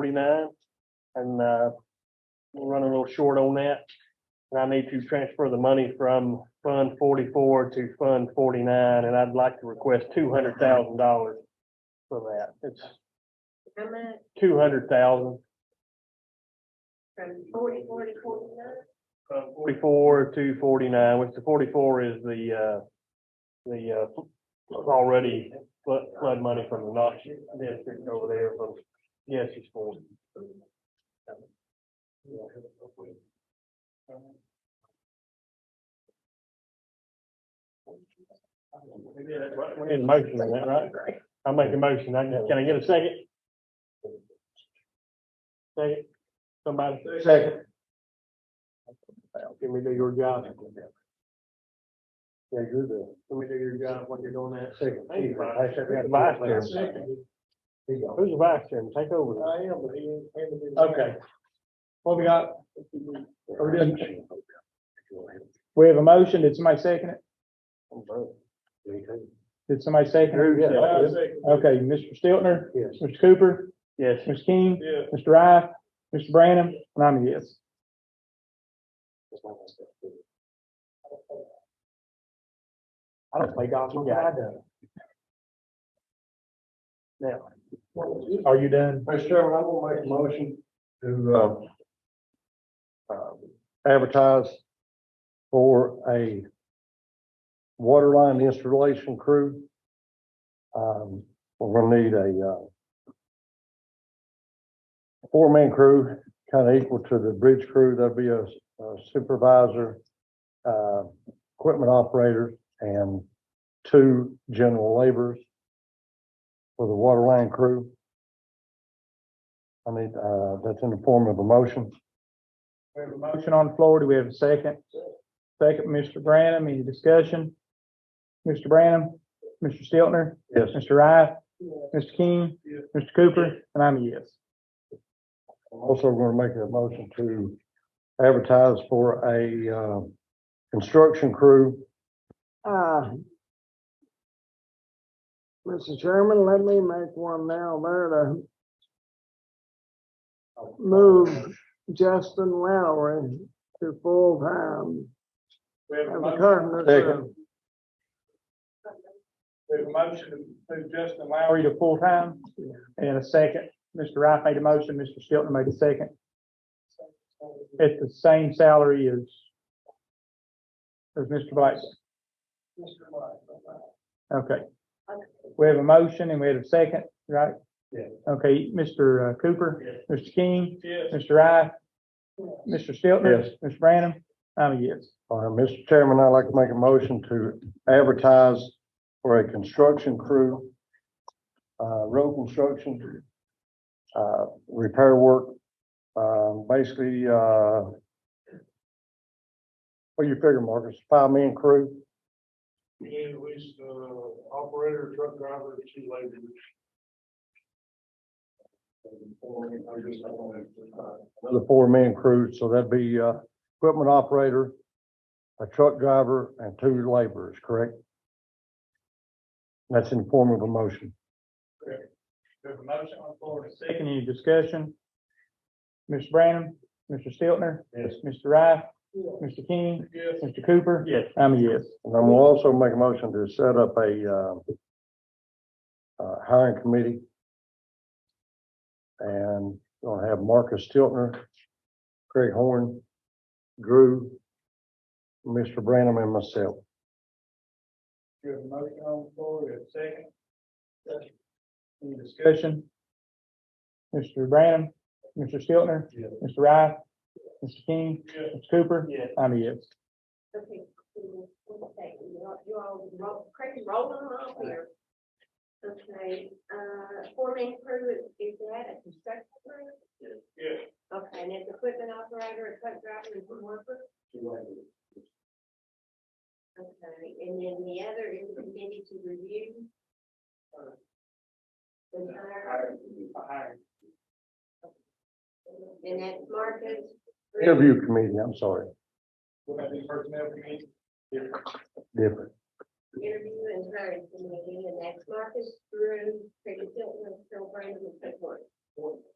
forty-nine. And, uh, we're running a little short on that. And I need to transfer the money from Fund forty-four to Fund forty-nine, and I'd like to request two hundred thousand dollars for that. It's How much two hundred thousand, from forty, forty, forty-nine? from forty-four to forty-nine, which the forty-four is the, uh, the, uh, already flood, flood money from the Knox district over there from, yes, it's forty. We need a motion on that, right? I'll make a motion. I can, can I get a second? Second, somebody? Second. Can we do your job? Yeah, you're the. Can we do your job when you're doing that? Second. Thank you, Vice Chairman. Vice Chairman. Who's the vice chairman? Take over. I am, but he ain't. Okay. What we got? Are we doing? We have a motion. Did somebody second it? Did somebody second it? Okay, Mr. Stiltner, Yes. Mr. Cooper, Yes. Mr. King, Yeah. Mr. Rife, Mr. Branham, and I'm a yes. I don't play golf. Yeah, I do. Now. Are you done? Mr. Chairman, I'm gonna make a motion to, um, um, advertise for a water line installation crew. Um, we're gonna need a, uh, four-man crew, kind of equal to the bridge crew. There'll be a a supervisor, uh, equipment operator, and two general laborers for the water line crew. I need, uh, that's in the form of a motion. We have a motion on the floor. Do we have a second? Second, Mr. Branham. Any discussion? Mr. Branham, Mr. Stiltner, Yes. Mr. Rife, Mr. King, Mr. Cooper, and I'm a yes. I'm also going to make a motion to advertise for a, uh, construction crew. Uh, Mr. Chairman, let me make one now uh, there to move Justin Lowry to full-time We have as a carpenter. Second. We have a motion to move Justin Lowry to full-time and a second. Mr. Wright made a motion, Mr. Stiltner made a second. At the same salary as as Mr. Black. Okay. We have a motion and we have a second, right? Yeah. Okay, Mr. uh, Cooper, Mr. King, Yes. Mr. Wright, Mr. Stiltner, Yes. Mr. Branham, I'm a yes. All right, Mr. Chairman, I'd like to make a motion to advertise for a construction crew, uh, road construction, uh, repair work, uh, basically, uh, what do you figure, Marcus, five-man crew? need at least, uh, operator, truck driver, two laborers. the four-man crew, so that'd be, uh, equipment operator, a truck driver, and two laborers, correct? That's in the form of a motion. There's a motion on the floor and a second. Any discussion? Mr. Branham, Mr. Stiltner, Yes. Mr. Rife, Mr. King, Mr. Cooper. Yes. I'm a yes. And I'm gonna also make a motion to set up a, uh, uh, hiring committee. And gonna have Marcus Tiltner, Craig Horn, Drew, Mr. Branham, and myself. You have a motion on the floor, we have a second. Any discussion? Mr. Branham, Mr. Stiltner, Yes. Mr. Rife, Mr. King, Yes. Mr. Cooper. Yes. I'm a yes. Okay, cool. okay, you all, you all roll, crazy rolling along here. Okay, uh, four-man crew, is- is that a construction crew? Yes. Okay, and it's equipment operator, a truck driver, and one worker? Okay, and then the other is the committee to review? Uh, The hire? And that's Marcus? Interview committee, I'm sorry, different. interview and hiring committee, and that's Marcus Drew, Craig Hilton, Phil Brandon, and Craig Horn.